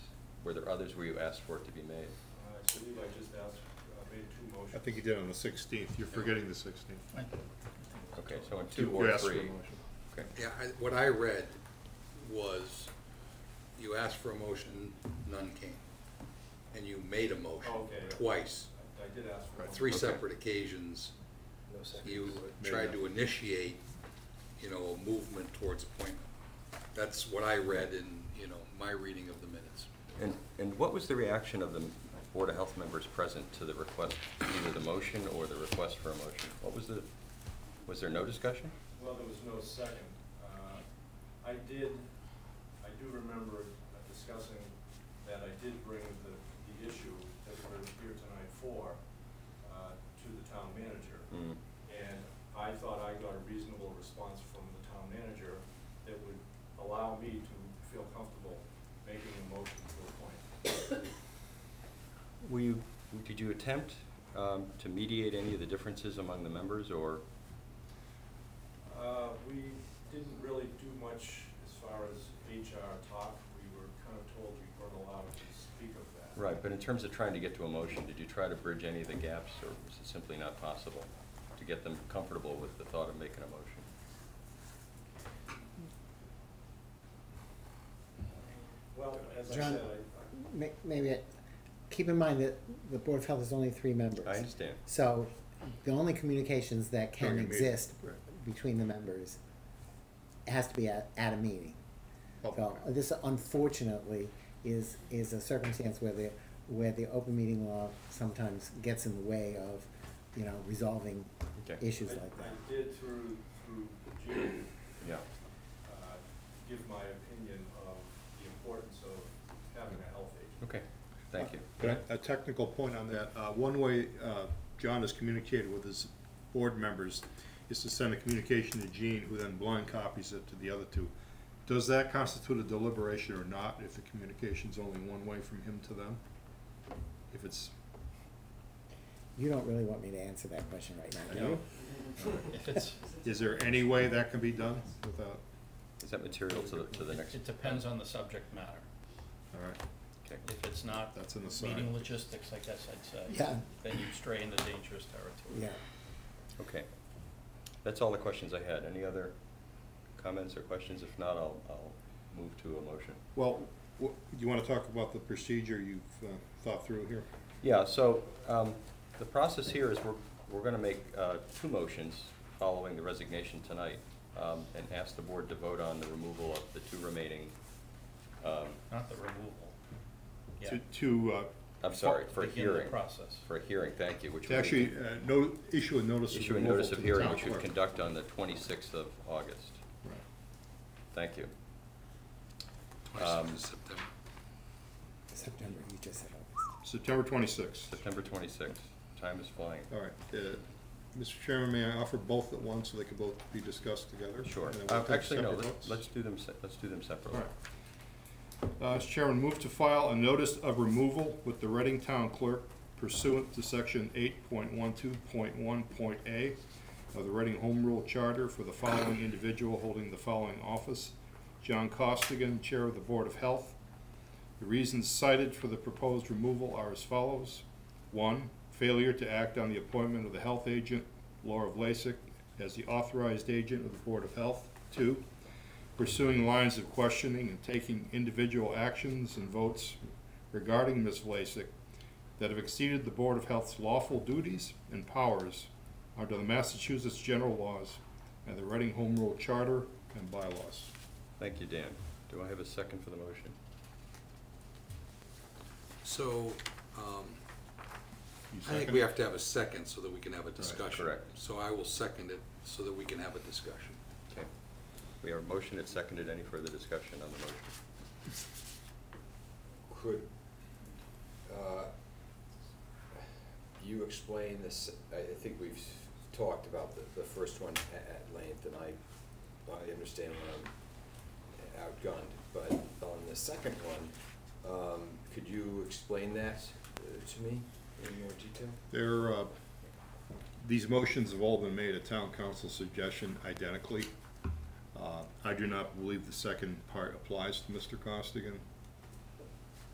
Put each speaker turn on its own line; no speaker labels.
Were there others where you asked for it to be made?
I believe I just asked, I made two motions.
I think you did on the sixteenth, you're forgetting the sixteenth.
Okay, so on two or three? Okay.
Yeah, I, what I read was you asked for a motion, none came. And you made a motion
Oh, Okay.
twice,
I did ask for.
Right,
one.
three
Okay.
separate occasions. You tried to initiate, you know, a movement towards appointment. That's what I read in, you know, my reading of the minutes.
And, and what was the reaction of the Board of Health members present to the request, either the motion or the request for a motion? What was the, was there no discussion?
Well, there was no second. Uh, I did, I do remember discussing that I did bring the, the issue that we're here tonight for, uh, to the town manager.
Mm.
And I thought I got a reasonable response from the town manager that would allow me to feel comfortable making a motion to appoint.
Were you, did you attempt um, to mediate any of the differences among the members, or?
Uh, We didn't really do much as far as HR talk. We were kind of told we weren't allowed to speak of that.
Right, but in terms of trying to get to a motion, did you try to bridge any of the gaps, or was it simply not possible to get them comfortable with the thought of making a motion?
Well, as I
John-
said, I-
Ma- Maybe, it- keep in mind that the Board of Health is only three members.
I understand.
So the only communications that can
During a meeting,
exist
right.
between the members has to be at, at a meeting. So
Public.
this unfortunately is, is a circumstance where the, where the open meeting law sometimes gets in the way of, you know, resolving
Okay.
issues
I,
like that.
I did through, through June,
Yeah,
uh, give my opinion of the importance of having a health agent.
okay, thank you.
But A a technical point on that, uh, one way, uh, John has communicated with his board members is to send a communication to Gene, who then blind copies it to the other two. Does that constitute a deliberation or not, if the communication's only one way from him to them? If it's,
You don't really want me to answer that question right now,
I
do you?
know,
Uh,
is there any way that can be done without,
Is that material to the, to the next?
It depends on the subject matter.
all right,
Okay.
If it's not
that's in the side.
meeting logistics, I guess I'd say,
Yeah,
then you stray into dangerous territory.
yeah.
Okay. That's all the questions I had. Any other comments or questions? If not, I'll, I'll move to a motion.
Well, wh- you wanna talk about the procedure you've uh, thought through here?
Yeah, so um, the process here is we're, we're going to make uh, two motions following the resignation tonight um, and ask the board to vote on the removal of the two remaining, um,
Not the removal. Yeah.
To, to, uh,
I'm sorry, for a
Begin the
hearing.
process.
For a hearing, thank you, which
to
would
actually,
be-
uh, no, issue a notice of
issue a
removal
notice
to
of
the
hearing,
town
which would
clerk.
conduct on the 26th of August.
Right.
Thank you. Um,
Twenty-second September.
September, you just said August.
September twenty-sixth.
September 26th. Time is flying.
All right, uh, Mr. Chairman, may I offer both at once so they can both be discussed together?
Sure.
And then we'll
Uh,
take
Actually, no,
separate
let-
votes?
let's do them, se- let's do them
All
separately.
right. Uh, Mr. Chairman, move to file a notice of removal with the Reading Town Clerk pursuant to section eight point one two point one point A of the Reading Home Rule Charter for the following individual holding the following office. John Costigan, Chair of the Board of Health. The reasons cited for the proposed removal are as follows. One, failure to act on the appointment of the health agent, Laura Vlasic, as the authorized agent of the Board of Health. Two, pursuing lines of questioning and taking individual actions and votes regarding Ms. Vlasic that have exceeded the Board of Health's lawful duties and powers under the Massachusetts general laws and the Reading Home Rule Charter and bylaws.
Thank you, Dan. Do I have a second for the motion?
So, um,
You
I think
second
we
it?
have to have a second so that we can have a discussion.
correct.
So I will second it so that we can have a discussion.
Okay. We have a motion, it's seconded. Any further discussion on the motion?
Could, uh, you explain this, I, I think we've talked about the, the first one a- at length, and I, I understand when I'm outgunned, but on the second one, um, could you explain that uh, to me in more detail?
There, uh, these motions have all been made at town council suggestion identically. Uh, I do not believe the second part applies to Mr. Costigan.